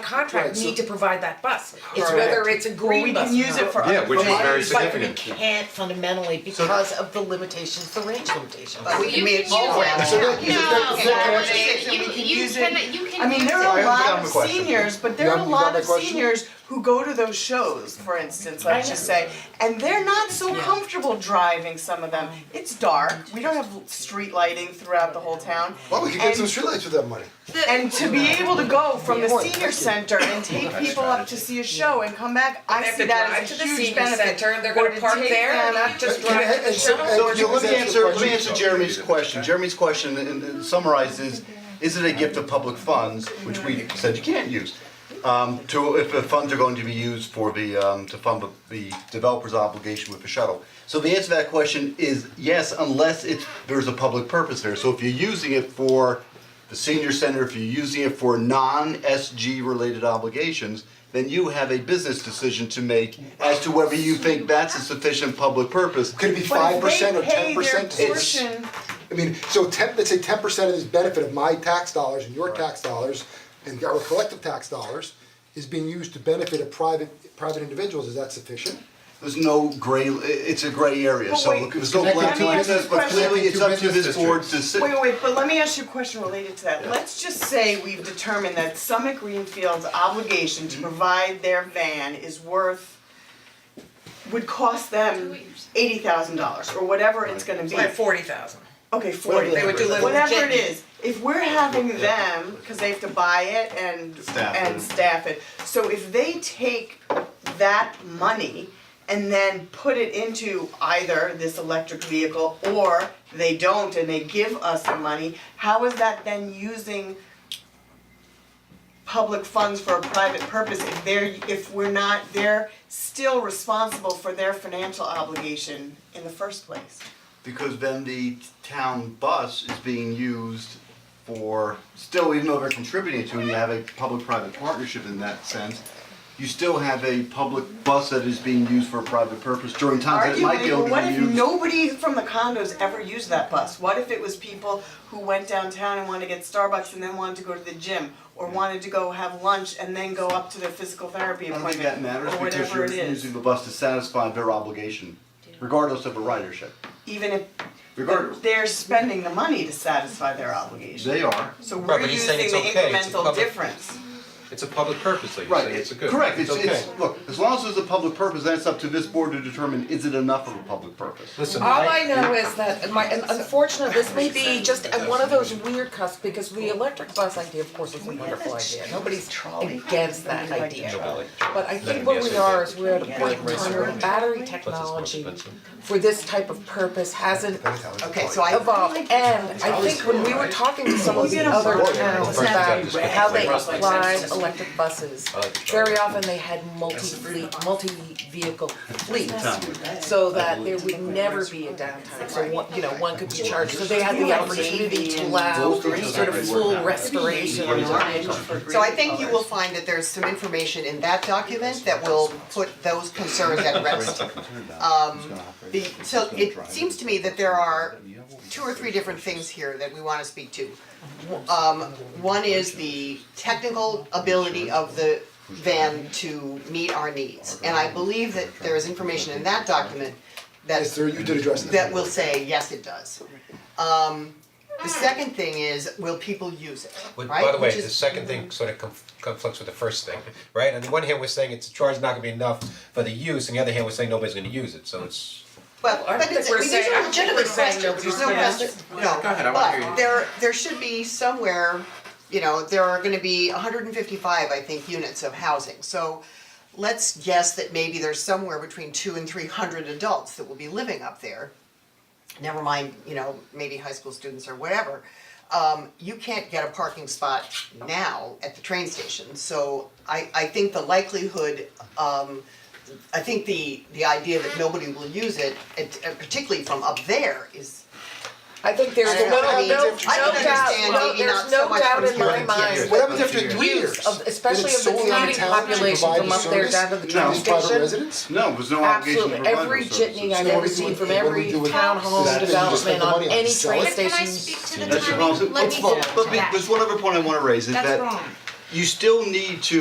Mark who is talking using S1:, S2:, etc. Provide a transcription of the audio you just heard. S1: contract
S2: Right, so-
S1: need to provide that bus. It's
S2: Correct.
S1: whether it's a
S3: Well, we
S1: green bus.
S3: can use it for
S4: Yeah,
S3: other
S4: which is
S3: purposes.
S4: very
S3: But we
S4: significant.
S3: can't fundamentally because of the limitations, the range limitations.
S2: But we
S5: You
S2: can
S5: can
S2: make
S5: use
S2: all
S5: it.
S2: rounds.
S5: So
S2: Yeah.
S5: that-
S2: Yeah.
S5: that-
S2: Yeah.
S5: that-
S2: Yeah.
S3: that-
S5: You,
S3: we can
S5: you
S3: use it.
S5: can, you can
S3: I mean,
S5: use
S3: there
S5: it.
S3: are a
S4: Yeah, I'm
S3: lot of
S4: question.
S3: seniors, but there
S4: You
S3: are a
S4: have- you
S3: lot
S4: have
S3: of
S4: a question?
S3: seniors who go to those shows, for instance, let's just say, and they're not so comfortable driving, some of them. It's dark, we don't have street lighting throughout the whole town.
S4: Well, we could get some
S3: And-
S4: streetlights with that money.
S5: The-
S3: And to be able to go from the senior center and take people up to see a show and come back, I see that as a huge benefit.
S1: They have to drive to the senior center, and they're gonna park there
S3: Or to take
S1: and
S3: them up
S1: not just
S4: Can I-
S1: drive to the
S4: and so-
S1: show.
S4: and-
S6: So let me answer, let me answer
S4: Question.
S6: Jeremy's question, Jeremy's question and and summarized is, is it a gift of public funds, which we said you can't use? Um to, if the funds are going to be used for the um to fund the- the developer's obligation with the shuttle. So the answer to that question is yes, unless it's, there's a public purpose there, so if you're using it for the senior center, if you're using it for non-SG related obligations, then you have a business decision to make as to whether you think that's a sufficient public purpose.
S4: Could it be
S3: But
S4: five
S3: if
S4: percent
S3: they
S4: or
S3: pay
S4: ten
S3: their
S4: percent?
S3: portion,
S4: I mean, so ten, let's say ten percent of this benefit of my tax dollars and your tax dollars and our collective tax dollars is being used to benefit a private, private individuals, is that sufficient?
S6: There's no gray, i- it's a gray area,
S3: But
S6: so
S3: wait,
S6: there's no
S4: Connected
S6: black
S3: to
S6: and white,
S3: business
S6: but
S3: question.
S6: clearly it's up to
S4: Connected to
S6: this
S4: business
S6: board to sit.
S3: Wait, wait, wait, but let me ask you a question related to that. Let's just say we've determined that Summit Greenfield's obligation to provide their van is worth would cost them eighty thousand dollars or whatever it's gonna be.
S1: Like forty thousand.
S3: Okay, forty.
S1: They would do little
S3: Whatever it
S1: jiggy.
S3: is, if we're having them, cause they have to buy it and
S6: Staff it.
S3: and staff it, so if they take that money and then put it into either this electric vehicle or they don't and they give us the money, how is that then using public funds for a private purpose if they're if we're not, they're still responsible for their financial obligation in the first place?
S6: Because then the town bus is being used for, still, even though they're contributing to, it, and you have a public-private partnership in that sense, you still have a public bus that is being used for a private purpose during times that it might be able
S3: Arguably, but
S6: to be
S3: what if
S6: used.
S3: nobody from the condos ever used that bus? What if it was people who went downtown and wanted to get Starbucks and then wanted to go to the gym? Or wanted to go have lunch and then go up to their physical therapy
S6: I don't
S3: appointment
S6: think that matters
S3: or
S6: because
S3: whatever
S6: you're
S3: it is,
S6: using the bus to satisfy their obligation, regardless of a ridership,
S3: even if
S6: regardless.
S3: they're spending the money to satisfy their obligation.
S6: They are.
S3: So we're
S7: Right, but he's
S3: using
S7: saying
S3: the
S7: it's okay, it's a
S3: incremental
S7: public-
S3: difference.
S7: It's a public purpose, like you
S6: Right,
S7: say, it's a good,
S6: correct,
S7: it's
S6: it's,
S7: okay.
S6: it's, look, as long as there's a public purpose, then it's up to this board to determine, is it enough of a public purpose?
S7: Listen,
S1: All I know is that my, and unfortunately, this may be just at one of those weird cusps, because the electric bus idea, of course, is a wonderful idea, nobody's against that idea. But I think where we are is we're at a point in time where battery technology for this type of purpose hasn't
S3: Okay, so I
S1: evolved, and I think when we were talking to some of the other towns about how they applied electric buses, very often they had multi-fleet, multi-vehicle fleets, so that there would never be a downtime, so one, you know, one could be charged, so they had the opportunity to allow sort of full restoration of
S8: So I think you will find that there's some information in that document that will put those concerns at rest. Um, the, so it seems to me that there are two or three different things here that we wanna speak to. Um, one is the technical ability of the van to meet our needs. And I believe that there is information in that document that
S4: Yes, sir, you did address that.
S8: that will say, yes, it does. Um, the second thing is, will people use it,
S7: But
S8: right?
S7: by the way,
S8: Which
S7: the
S8: is-
S7: second thing sort of conf- conflicts with the first thing, right? On the one hand, we're saying it's a charge not gonna be enough for the use, on the other hand, we're saying nobody's gonna use it, so it's.
S8: Well,
S1: I
S8: but
S1: think
S8: it's,
S1: we're
S8: these
S1: saying- I
S8: are
S1: think
S8: legitimate
S1: we're saying
S8: questions, there's
S1: no
S8: no question, no,
S7: go ahead, I wanna hear
S8: but
S7: you.
S8: there, there should be somewhere, you know, there are gonna be hundred and fifty-five, I think, units of housing, so let's guess that maybe there's somewhere between two and three hundred adults that will be living up there. Never mind, you know, maybe high school students or whatever. Um, you can't get a parking spot now at the train station, so I, I think the likelihood, um, I think the, the idea that nobody will use it, it- uh, particularly from up there, is,
S1: I think there's
S8: I don't know,
S1: no,
S8: I
S1: no,
S8: mean,
S1: no
S8: I can
S1: doubt,
S8: understand
S1: no,
S8: maybe not
S1: there's
S8: so
S1: no
S8: much
S1: doubt
S8: from
S1: in my
S8: here.
S1: mind
S4: What happens after three years?
S1: use of, especially of the
S4: solely on
S1: commuting
S4: town to
S1: population
S4: provide
S1: from
S4: the
S1: up there
S4: service?
S1: down to the
S6: No.
S1: train
S4: These
S1: station.
S4: private residents?
S6: No, there's no obligation
S1: Absolutely,
S6: to provide
S1: every
S6: those
S1: jitney
S6: services.
S1: I've ever
S4: So what do we
S1: seen
S4: do-
S1: from
S4: what do we
S1: every
S4: do with that?
S1: townhome
S4: Then you just
S1: development
S4: spend the
S1: on
S4: money on it,
S1: any
S4: sell
S1: train
S4: it?
S5: But can I
S1: station.
S5: speak to the
S6: That's the
S5: timing?
S6: problem.
S5: Let
S6: Let's
S5: me
S6: vote.
S5: get to
S6: But be-
S5: that.
S6: there's one other point I wanna raise, is that
S1: wrong.
S6: you still need to